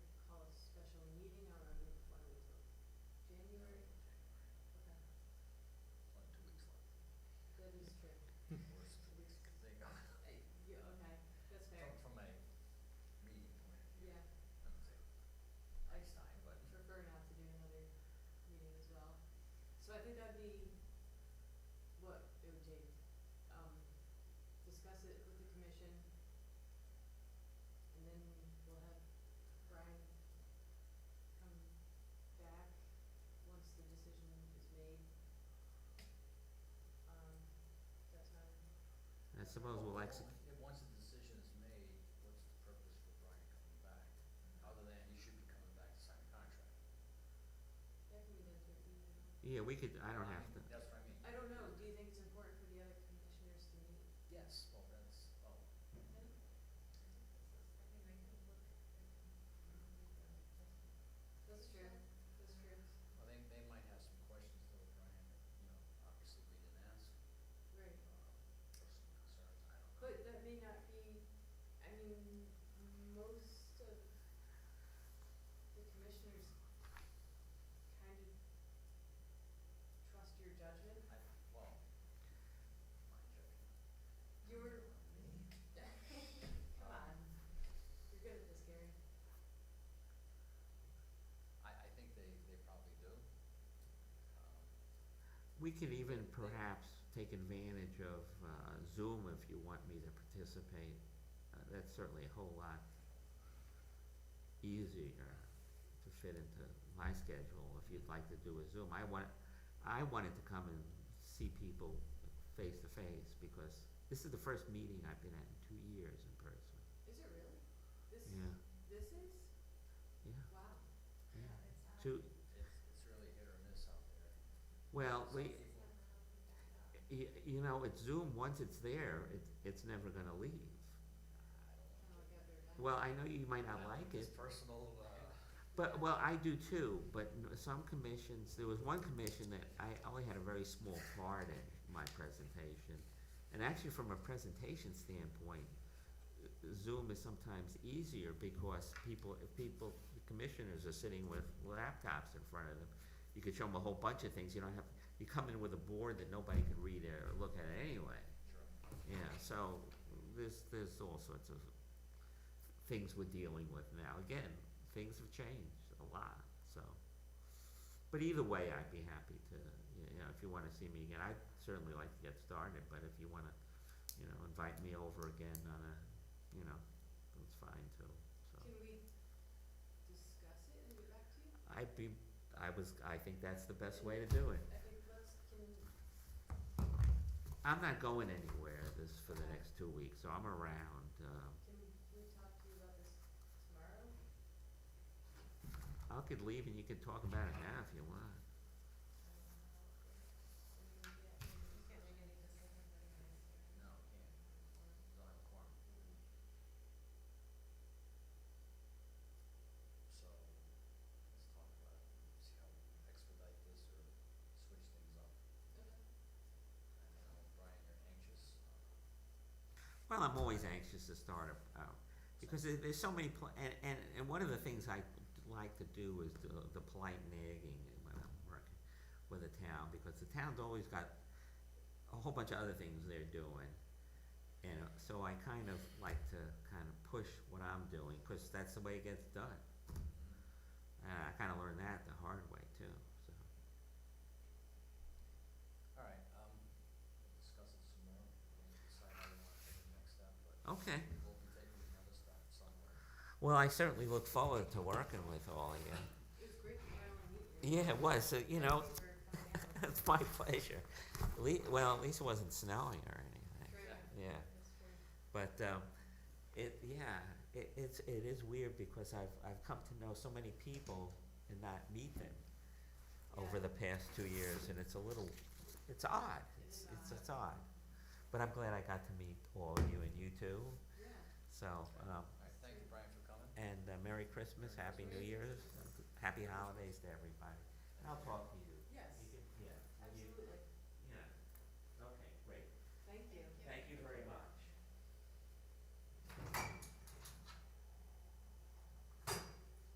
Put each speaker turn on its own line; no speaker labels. um, Um,
suppose we'll exit.
If, once the decision is made, what's the purpose for Brian coming back? Other than he should be coming back to sign a contract.
That can be done through email.
Yeah, we could, I don't have to,
That's what I mean.
I don't know, do you think it's important for the other commissioners to meet?
Yes, well, that's, oh,
That's true, that's true.
well, they, they might have some questions though, Brian, that, you know, obviously we didn't ask,
Right,
uh, or some concerns, I don't know.
but that may not be, I mean, most of the commissioners kind of trust your judgment.
I, well, my judgment.
You're,
Me?
come on, you're good at this, Gary.
I, I think they, they probably do. Um,
we could even perhaps take advantage of uh, Zoom if you want me to participate. Uh, That's certainly a whole lot easier to fit into my schedule if you'd like to do a Zoom. I want, I wanted to come and see people face to face because this is the first meeting I've been at in two years in person.
Is it really? This,
Yeah,
this is?
yeah,
Wow.
yeah. Two,
It's, it's really hit or miss out there.
well,
Some
we,
people-
Y- you know, it's Zoom, once it's there, it, it's never gonna leave.
I don't know.
Oh, I got their
Well, I know you might not
I
like
think
it,
It's personal, uh,
but, well, I do too, but n- some commissions, there was one commission that I only had a very small part in my presentation. And actually, from a presentation standpoint, uh, Zoom is sometimes easier because people, if people, commissioners are sitting with laptops in front of them, you could show them a whole bunch of things, you don't have, you come in with a board that nobody can read or look at anyway.
sure.
Yeah, so there's, there's all sorts of things we're dealing with now. Again, things have changed a lot, so. But either way, I'd be happy to, you know, if you wanna see me again, I'd certainly like to get started, but if you wanna, you know, invite me over again on a, you know, that's fine too, so.
Can we discuss it and get back to you?
I'd be, I was, I think that's the best way to do it.
I think let's, can,
I'm not going anywhere this, for the next two weeks, so I'm around, um,
can we talk to you about this tomorrow?
I could leave and you could talk about it now if you want.
You can't make any decisions
No, I can't, don't have a quorum. So, let's talk about it, see how we expedite this or switch things up. I know, Brian, you're anxious. uh,
Well, I'm always anxious to start a, uh, because there, there's so many, pl- and, and, and one of the things I like to do is the, the polite nagging when I'm working with a town, because the town's always got a whole bunch of other things they're doing. And uh, so I kind of like to kind of push what I'm doing, cause that's the way it gets done. Mm-hmm. And I kinda learned that the hard way too, so.
All right, um, we'll discuss it some more, and decide how we want to take the next step, but
Okay,
we'll be taking another step somewhere.
well, I certainly look forward to working with all of you.
It was great to finally meet you.
Yeah, it was, so, you know,
Thank you for coming out.
It's my pleasure. Le- well, at least it wasn't snowing or anything.
True.
Yeah,
That's true.
but um, it yeah it, it's it is weird because I've I've come to know so many people and not meet them over
Yeah.
the past two years, and it's a little it's odd.
It
It's
is
it's
odd.
it's odd, but I'm glad I got to meet all of you and you too.
Yeah.
So
All
um,
right, thank you, Brian, for coming.
and uh, Merry
Merry
Christmas, Happy
Christmas.
New Year's, Happy Holidays to everybody. And I'll talk to you